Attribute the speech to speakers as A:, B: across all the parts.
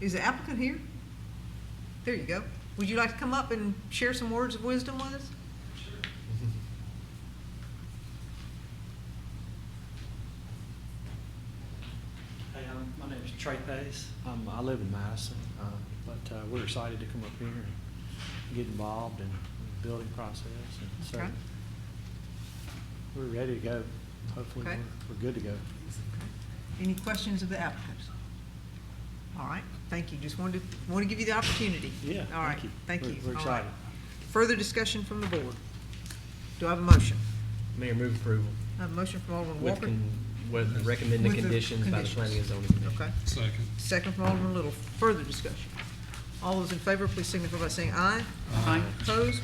A: Is the applicant here? There you go. Would you like to come up and share some words of wisdom with us?
B: Hey, um, my name is Trey Pace. Um, I live in Madison, uh, but, uh, we're excited to come up here and get involved in the building process. And so
A: Okay.
B: we're ready to go. Hopefully,
A: Okay.
B: we're, we're good to go.
A: Any questions of the applicant? All right, thank you. Just wanted to, want to give you the opportunity.
B: Yeah,
A: All right,
B: thank you.
A: thank
B: We're-
A: you.
B: we're
A: All right.
B: excited.
A: Further discussion from the board? Do I have a motion?
C: Mayor, move approval
A: I have a motion from Alderman
C: with,
A: Walker.
C: con- with recommended
A: With the
C: conditions by the planning and zoning commission.
A: Okay.
D: Second.
A: Second from Alderman Little. Further discussion. All those in favor, please signify by saying aye. Aye. Opposed?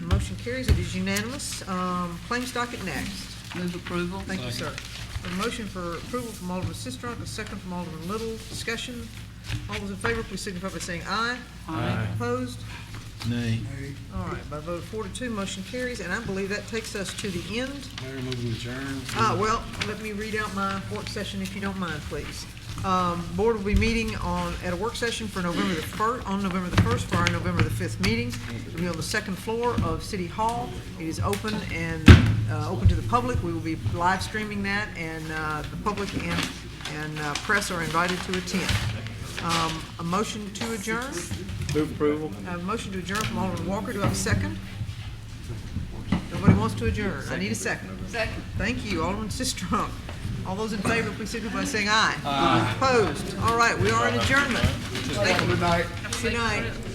A: Motion carries. It is unanimous. Um, Claims docket next.
E: Move approval.
A: Thank you, sir. A motion for approval from Alderman Sistrunk, a second from Alderman Little. Discussion. All those in favor, please signify by saying aye.
E: Aye.
A: Opposed?
F: Nay.
A: All right, by a vote of four to two, motion carries, and I believe that takes us to the end.
D: Mayor, move to adjourn.
A: Ah, well, let me read out my work session if you don't mind, please. Um, Board will be meeting on, at a work session for November the first, on November the first for our November the fifth meeting. It'll be on the second floor of City Hall. It is open and, uh, open to the public. We will be live streaming that and, uh, the public and, and, uh, press are invited to attend. Um, a motion to adjourn,
B: Move approval.
A: a motion to adjourn from Alderman Walker. Do I have a second? Nobody wants to adjourn. I need a second.
E: Second.
A: Thank you, Alderman Sistrunk. All those in favor, please signify by saying aye. Opposed? All right, we are in adjournment. Thank you. Good night.